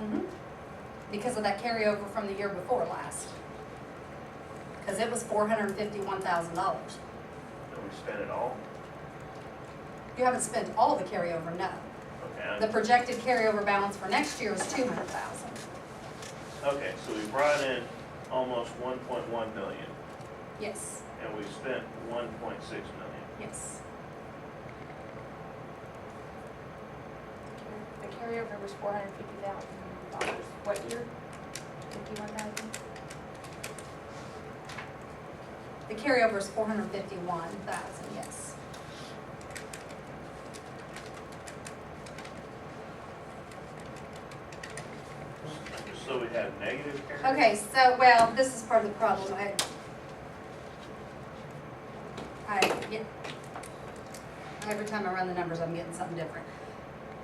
Mm-hmm. because of that carryover from the year before last. Because it was four hundred and fifty-one thousand dollars. Did we spend it all? You haven't spent all the carryover, no. The Okay, projected carryover balance for next year is two hundred thousand. okay, so we brought in almost one point one million, Yes, and we spent one point six million. yes. The carryover was four hundred fifty thousand dollars. What year? Fifty-one thousand? The carryover is four hundred and fifty-one thousand, yes. So we had negative carryover? Okay, so, well, this is part of the problem, I. I, yeah. Every time I run the numbers, I'm getting something different.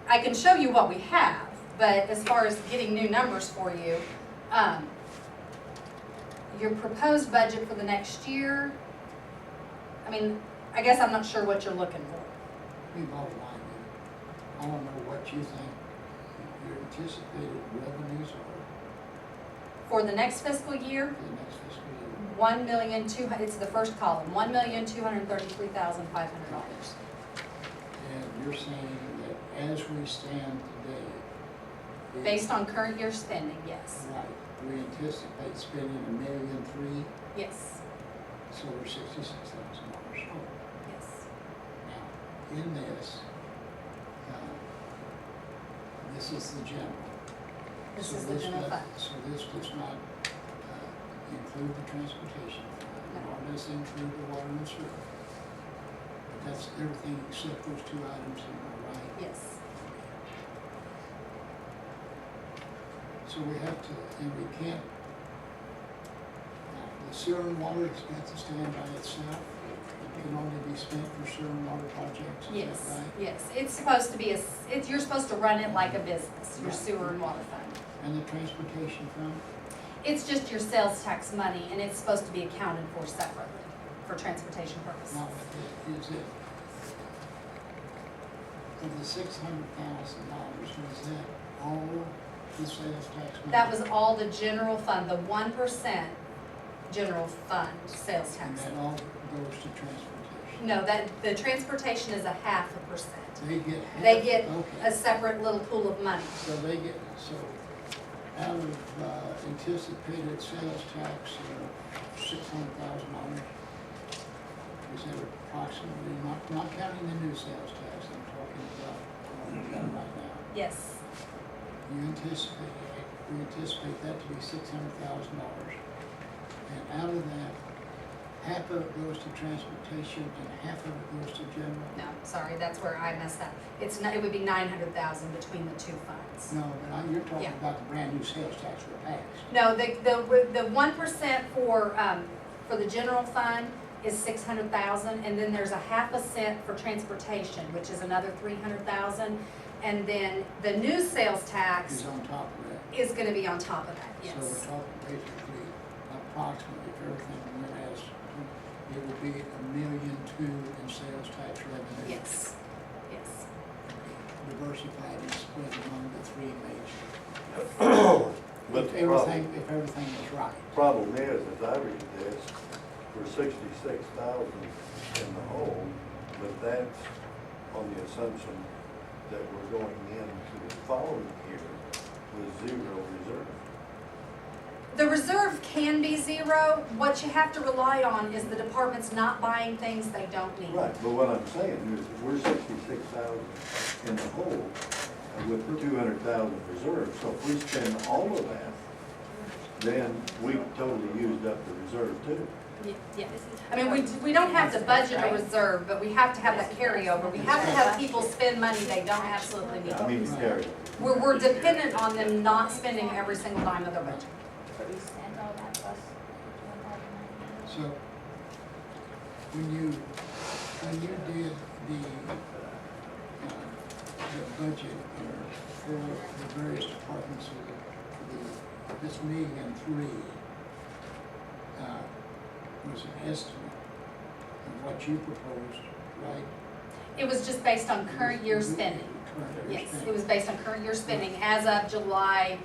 I can show you what we have, but as far as getting new numbers for you, um, your proposed budget for the next year, I mean, I guess I'm not sure what you're looking for. We bottom line, I don't know what you think your anticipated revenues are For the next fiscal year, for the next fiscal year. one million two, it's the first column, one million two hundred thirty-three thousand five hundred dollars. And you're saying that as we stand today. we- Based on current year spending, yes, Right, we anticipate spending a million three, yes, so we're sixty-six thousand dollars short. yes. Now, in this, uh, this is the general. This So is the general does- fund. So this does not uh, include the transportation, No. fund, nor does it include the water and sewer. But that's everything except those two items in the right. Yes, So we have to, and we can't, now, the sewer and water expense is stand by itself. It can only be spent for sewer and water projects, is that yes, right? yes. It's supposed to be a, s- it's, you're supposed to run it like a business, your Right. sewer and water fund. And the transportation fund, It's just your sales tax money and it's supposed to be accounted for separately for transportation purposes. now, is it? Of the six hundred thousand dollars, was that all the sales tax money? That was all the general fund, the one percent general fund sales And tax. that all goes to transportation? No, that, the transportation is a half a percent. They get half? They get Okay. a separate little pool of money. So they get, so out of uh, anticipated sales tax of six hundred thousand dollars, is that approximately, not, not counting the new sales tax I'm talking about, what we've got right now. Yes, You anticipate, we anticipate that to be six hundred thousand dollars. And out of that, half of it goes to transportation and half of it goes to general. no, sorry, that's where I messed up. It's, n- it would be nine hundred thousand between the two funds. No, but I, you're talking Yeah. about the brand new sales tax we're passed. No, the, the, the one percent for, um, for the general fund is six hundred thousand, and then there's a half a cent for transportation, which is another three hundred thousand. And then the new sales tax is on top of that. is gonna be on top of that, So we're yes. talking basically approximately if everything went as, it would be a million two in sales tax revenue. Yes, yes. Diversified and split among the three major. But If the problem, everything, if everything is right. problem is, as I read this, we're sixty-six thousand in the hole, but that's on the assumption that we're going into the following year with zero reserve. The reserve can be zero, what you have to rely on is the department's not buying things they don't need. Right, but what I'm saying is, we're sixty-six thousand in the hole uh, with the two hundred thousand reserve, so if we spend all of that, then we totally used up the reserve too. Y- Yes, I mean, we, we don't have to budget a reserve, but we have to have that carryover, we have to have people spend money they don't absolutely need. I mean, Terry, We're, we're dependent on them not spending every single dime of their budget. But we spent all that plus fifty-one thousand nine So when you, when you did the, uh, the budget for the various departments of the, for the, this million three, uh, was an estimate of what you proposed, right? It was just based on current year spending. Current year Yes, spending. it was based on current year spending as of July